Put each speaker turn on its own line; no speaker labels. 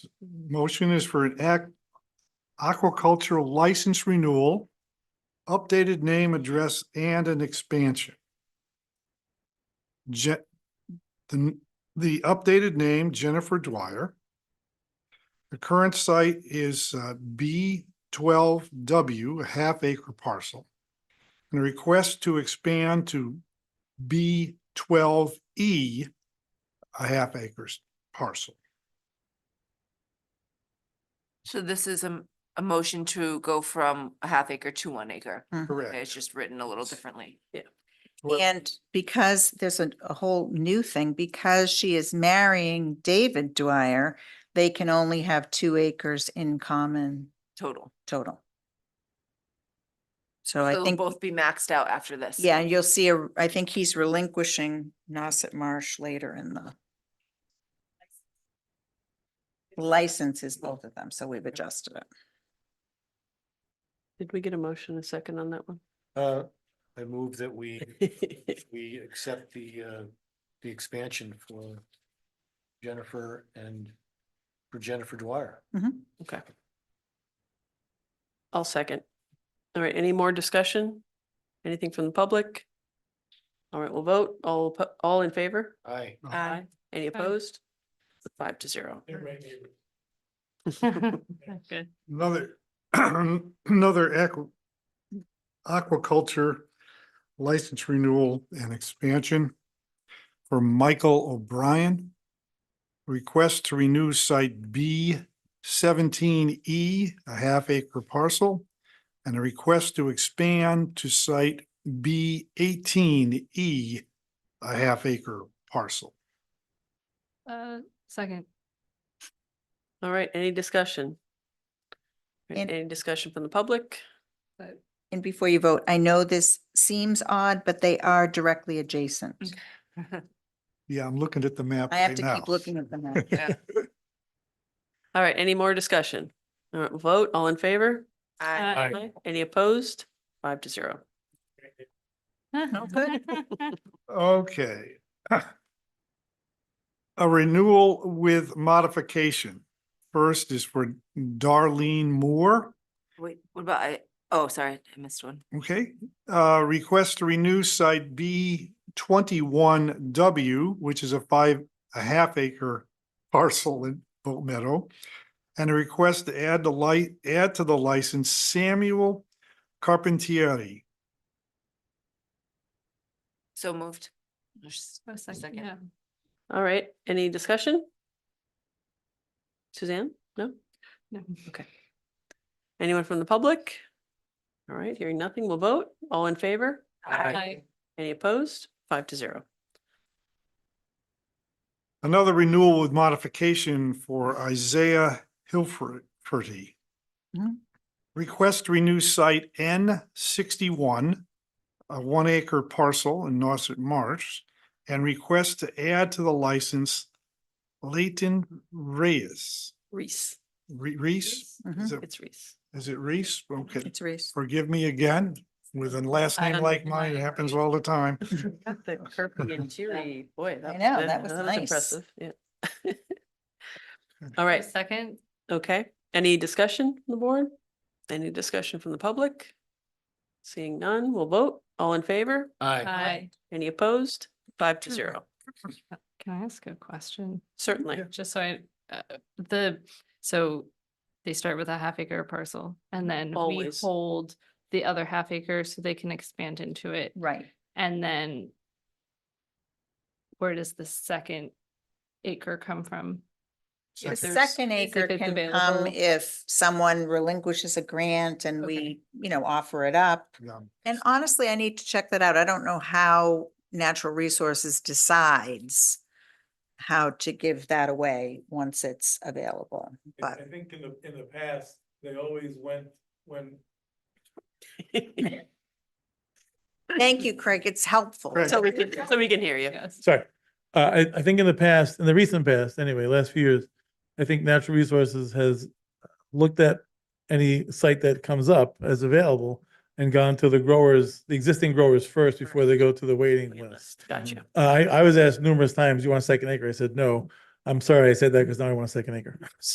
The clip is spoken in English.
Motion is for an act aquaculture license renewal, updated name, address, and an expansion. Je, the, the updated name Jennifer Dwyer. The current site is uh, B twelve W, a half acre parcel. And a request to expand to B twelve E, a half acres parcel.
So this is a, a motion to go from a half acre to one acre.
Correct.
It's just written a little differently. Yeah.
Well-
And because there's a, a whole new thing, because she is marrying David Dwyer, they can only have two acres in common
Total.
total. So
So
I
they'll
think,
both be maxed out after this.
yeah, and you'll see, a- I think he's relinquishing Nauset Marsh later in the licenses, both of them, so we've adjusted it.
Did we get a motion a second on that one?
Uh, I move that we, we accept the, uh, the expansion for Jennifer and for Jennifer Dwyer.
Mm-hmm.
Okay. I'll second. All right, any more discussion? Anything from the public? All right, we'll vote. All, oppo- all in favor?
Aye.
Aye.
Any opposed? Five to zero.
Good.
Another, another aqua, aquaculture license renewal and expansion for Michael O'Brien. Request to renew site B seventeen E, a half acre parcel, and a request to expand to site B eighteen E, a half acre parcel.
Uh, second.
All right, any discussion? All right,
And-
Any discussion from the public?
And before you vote, I know this seems odd, but they are directly adjacent.
Yeah, I'm looking at the map
I have
right
to
now.
keep looking at them. now.
Yeah.
All right, any more discussion? All right, vote, all in favor?
Aye.
Uh,
Any opposed? Five to zero.
Okay. A renewal with modification. First is for Darlene Moore,
Wait, what about, I, oh, sorry, I missed one.
okay? Uh, request to renew site B twenty-one W, which is a five, a half acre parcel in Boat Meadow. And a request to add the light, add to the license Samuel Carpentieri.
So moved.
Oh, second,
Second.
yeah.
All right, any discussion? Suzanne? No?
No.
Okay. Anyone from the public? All right, hearing nothing, we'll vote. All in favor?
Aye.
Any opposed? Five to zero.
Another renewal with modification for Isaiah Hilferty.
Mm-hmm.
Mhm.
Request to renew site N sixty-one, a one acre parcel in Nauset Marsh, and request to add to the license Leighton Reyes.
Reese,
Re- Reese? Is
Mhm.
it,
it's Reese.
is it Reese? Okay,
It's Reese.
forgive me again, with a last
I
name like mine, it
understand.
happens all the time.
Got the curvy and cheery, boy.
I
was
know,
good.
that was nice.
impressive. Yeah. All right,
Second,
okay. Any discussion from the board? Any discussion from the public? Seeing none, we'll vote. All in favor?
aye.
Any opposed? Five to zero,
Can I ask a question?
certainly.
Just so I, uh, the, so they start with a half acre parcel and then we
Always.
hold the other half acre so they can expand into it.
Right.
And then where does the second acre come from?
The
there's-
second
if
acre
it's
can come
available.
if someone relinquishes a grant and we, you know, offer it up.
Yeah.
And honestly, I need to check that out. I don't know how Natural Resources decides how to give that away once it's available,
I
but
I think in the, in the past, they always went, when
thank you, Craig. It's helpful.
Craig.
So we can, so we can hear you.
Yes.
Sorry, uh, I, I think in the past, in the recent past, anyway, last few years, I think Natural Resources has looked at any site that comes up as available and gone to the growers, the existing growers first before they go to the waiting list. Uh,
Gotcha.
I, I was asked numerous times, you want a second acre? I said, no. I'm sorry I said that because now I want a second acre.